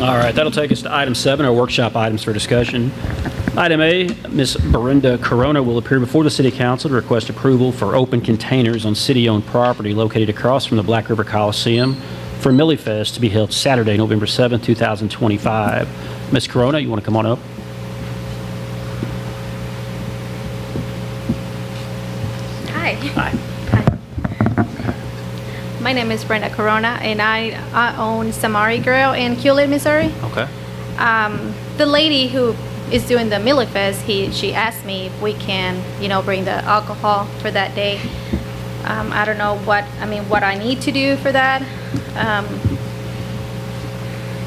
All right, that'll take us to item seven, our workshop items for discussion. Item A, Ms. Brenda Corona will appear before the City Council to request approval for open containers on city-owned property located across from the Black River Coliseum for Millie Fest to be held Saturday, November 7th, 2025. Ms. Corona, you want to come on up? Hi. Hi. My name is Brenda Corona, and I, I own Samari Grill in Hewlett, Missouri. Okay. Um, the lady who is doing the Millie Fest, he, she asked me if we can, you know, bring the alcohol for that day. Um, I don't know what, I mean, what I need to do for that. Um,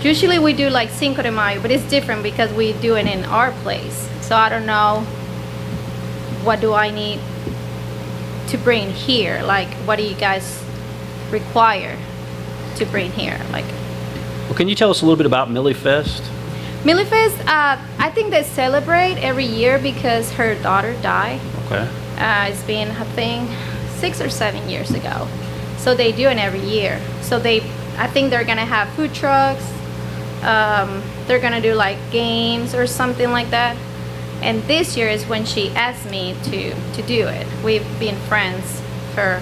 usually we do like Cinco de Mayo, but it's different because we do it in our place. So I don't know what do I need to bring here? Like, what do you guys require to bring here? Like, Well, can you tell us a little bit about Millie Fest? Millifest, uh, I think they celebrate every year because her daughter died. Okay. Uh, it's been, I think, six or seven years ago. So they do it every year. So they, I think they're gonna have food trucks. Um, they're gonna do like games or something like that. And this year is when she asked me to to do it. We've been friends for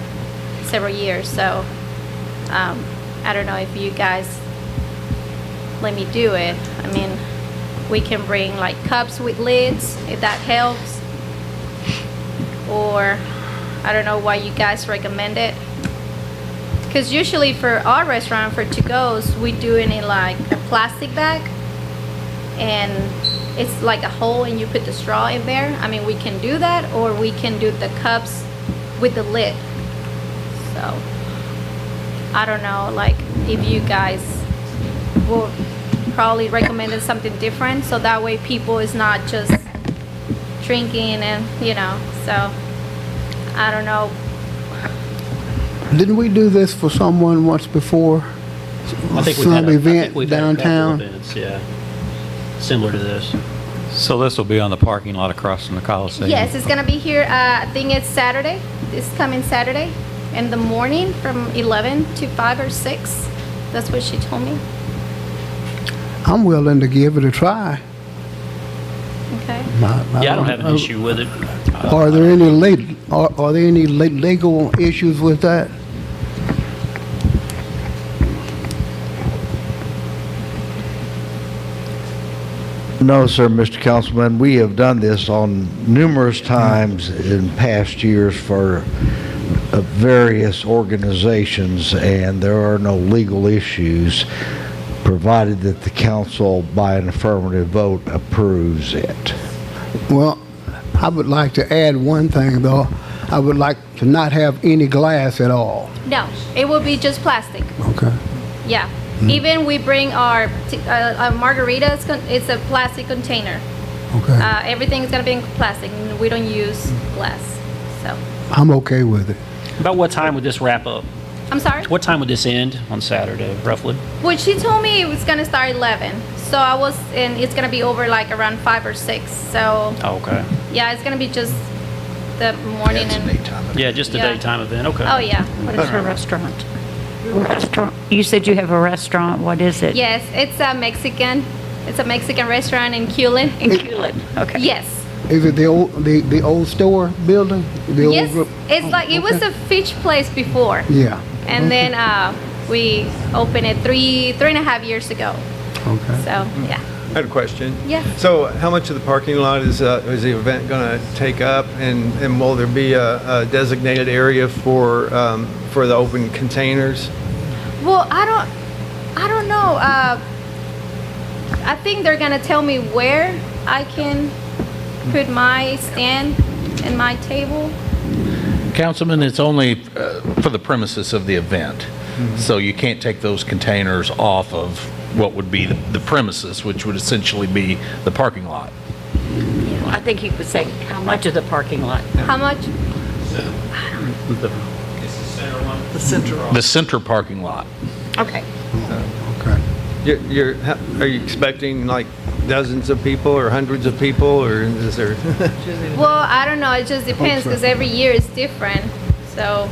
several years, so um, I don't know if you guys let me do it. I mean, we can bring like cups with lids if that helps. Or I don't know why you guys recommend it. Because usually for our restaurant for to goes, we do it in like a plastic bag, and it's like a hole, and you put the straw in there. I mean, we can do that, or we can do the cups with the lid. So I don't know, like if you guys will probably recommend it something different so that way people is not just drinking and you know so i don't know Didn't we do this for someone once before? I think we've had Some a- I think event we've had a couple downtown? events, Yeah, similar to this. So this will be on the parking lot across from the Coliseum? yes it's gonna be here uh, i think it's saturday this coming saturday in the morning from 11 to 5 or 6 that's what she told me I'm willing to give it a try. okay My- my- Yeah, I don't have an issue with it. Are there any late, are, are there any le- legal issues with that? No, sir, Mr. Councilman, we have done this on numerous times in past years for uh, various organizations, and there are no legal issues, provided that the council, by an affirmative vote, approves it. Well, I would like to add one thing, though. I would like to not have any glass at all. no it will be just plastic Okay. yeah even we bring our t- uh, uh, margaritas con- it's a plastic container Okay. Uh, everything's gonna be in plastic. and We don't use glass. So, I'm okay with it. About what time would this wrap up? I'm sorry. What time would this end on Saturday, roughly? Well, she told me it was gonna start 11. So I was, and it's gonna be over like around five or six. So Okay. yeah, it's gonna be just the morning and. Yeah, just a Yeah. daytime event, okay. Oh yeah. What is her restaurant? Restaurant, you said you have a restaurant, what is it? Yes, it's a Mexican. It's a Mexican restaurant in Culin. In Culin, okay. Yes. Is it the old, the, the old store building? The old Yes. gro- It's like it was a fish place before, Yeah. and then uh, we opened it three three and a half years ago. Okay. So yeah. I had a question. Yeah. So how much of the parking lot is, uh, is the event going to take up? And, and will there be a a designated area for, um, for the open containers? Well, I don't, I don't know. Uh, I think they're gonna tell me where I can put my stand and my table. Councilman, it's only uh, for the premises of the event. So you can't take those containers off of what would be the the premises, which would essentially be the parking lot. I think he was saying, how much of the parking lot? How much? The center parking lot. Okay. Okay. You're, you're- ha- are you expecting like dozens of people or hundreds of people or is there? Well, I don't know. It just depends because every year is different. So